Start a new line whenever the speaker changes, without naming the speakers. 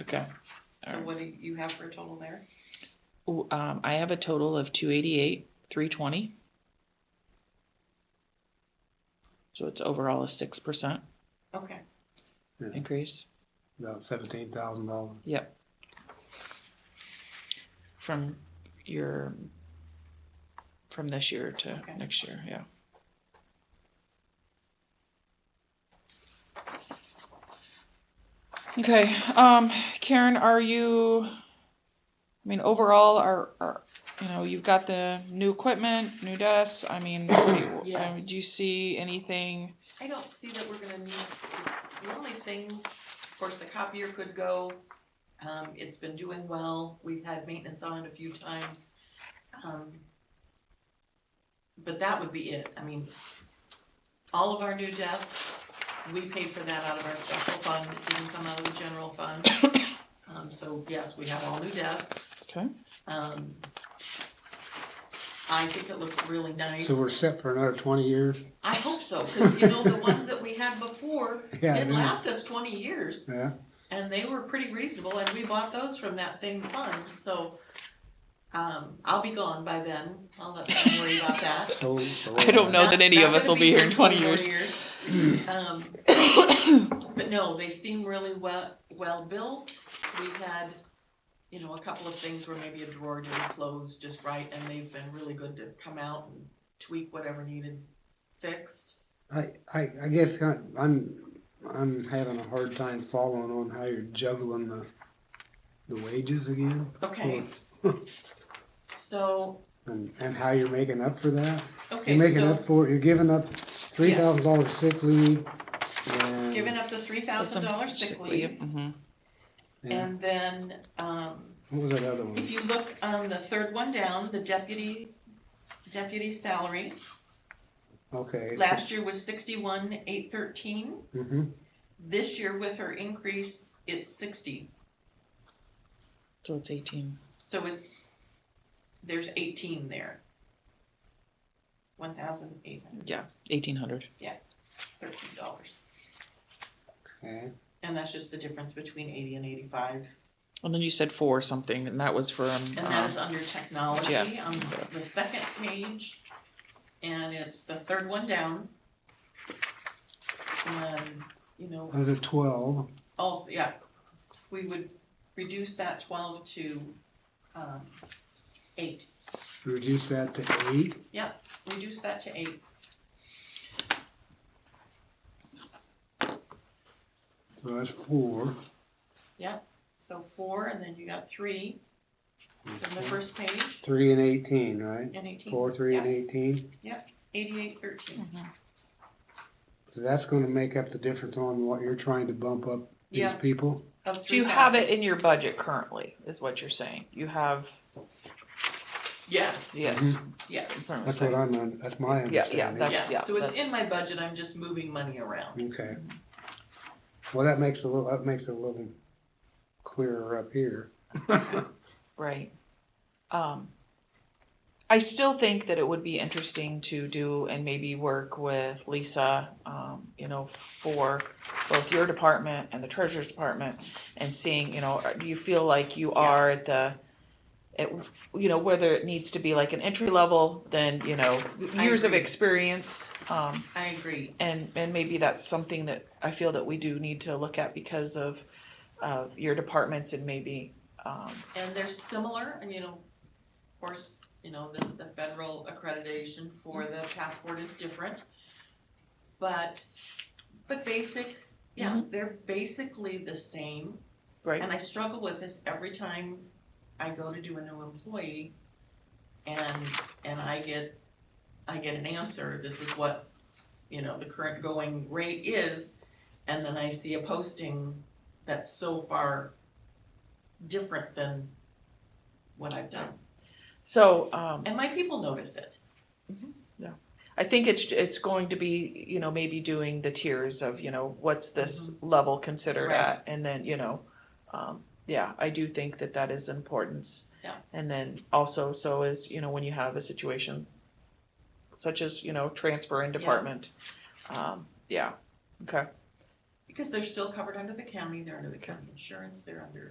Okay. All
So
right.
what do you have for a total there?
Ooh, Um, I have a total of two eighty-eight, three twenty. So it's overall a six percent
Okay,
increase,
About seventeen thousand dollars.
yep. From your, from this year to
Okay.
next year, yeah. Okay, um, Karen, are you, I mean, overall, are, are, you know, you've got the new equipment, new desks, I mean, what do you- I mean,
Yes.
do you see anything?
I don't see that we're gonna need, to- the only thing, of course, the copier could go. Um, it's been doing well, we've had maintenance on it a few times. Um, But that would be it, I mean, all of our new desks, we paid for that out of our special fund, it didn't come out of the general fund. Um, so yes, we have all new desks.
Okay.
Um, I think it looks really nice.
So we're set for another twenty years?
I hope so, because you know, the ones that we had before
Yeah, I
did
know.
last us twenty years,
Yeah,
and they were pretty reasonable, and we bought those from that same fund, so. Um, I'll be gone by then, I'll let them worry about that.
so. so-
I don't know. that
Not-
any
not
of us
gonna
will be here in 20
more years. Um, But no, they seem really well, well-built. We had, you know, a couple of things where maybe a drawer didn't close just right, and they've been really good to come out and tweak whatever needed fixed.
I, I, I guess I- I'm, I'm having a hard time following on how you're juggling the, the wages again.
Okay, so,
And, and how you're making up for that.
okay,
You're making
so
up for, it. you're giving up three thousand dollars sick leave and.
giving up the three thousand dollar sick leave,
Mhm.
and
and then, um,
What was that other one?
If you look on the third one down, the deputy, deputy salary,
Okay.
last year was sixty-one, eight thirteen.
Mm-hmm,
This year with her increase, it's sixty,
So it's eighteen.
so it's, there's eighteen there. One thousand eight hundred
Yeah, eighteen hundred.
thirteen dollars,
okay.
and that's just the difference between eighty and eighty-five.
And then you said four something, and that was from.
And that
um,
is under technology
yeah.
on the second page, and it's the third one down. And, you know,
Other twelve.
also, yeah, we would reduce that twelve to, um, eight,
Reduce that to eight.
reduce that to eight.
So that's four.
So four, and then you got three on the first page,
Three and eighteen, right?
and eighteen,
Four, three, and eighteen.
eighty-eight, thirteen.
Mhm.
So that's going to make up the difference on what you're trying to bump up these
Yeah.
people.
of
So you have
3,000.
it in your budget currently, is what you're saying. You have,
Yes,
yes.
yes,
Mm-hmm. That's what I'm. Un- that's my
Yeah, yeah, that-
understanding.
That's-
yeah,
yeah,
so it's
that's-
in my budget, I'm just moving money around,
Okay. Well, that makes a little. That makes it a little clearer up here.
Right. Um, I still think that it would be interesting to do and maybe work with Lisa, um, you know, for both your department and the treasurer's department and seeing, you know, uh, do you feel like you are at the, at, you know, whether it needs to be like an entry level, then, you know,
I
years of
agree.
experience, um,
I agree,
and and maybe that's something that I feel that we do need to look at because of of your departments and maybe um,
and they're similar, and you know, of course, you know, the, the federal accreditation for the passport is different. But, but basic, yeah, they're basically the same,
right.
and I struggle with this every time I go to do a new employee. And, and I get, I get an answer, this is what, you know, the current going rate is, and then I see a posting that's so far different than what I've done.
So um,
And my people notice it.
I think it's it's going to be you know maybe doing the tiers of you know what's this level considered
Mm-hmm. Right.
at and then you know um, yeah I do think that that is importance.
Yeah.
And then also so is you know when you have a situation such as you know transfer in
Yeah.
department. Um, yeah. Okay.
Because they're still covered under the county, they're under the county insurance, they're under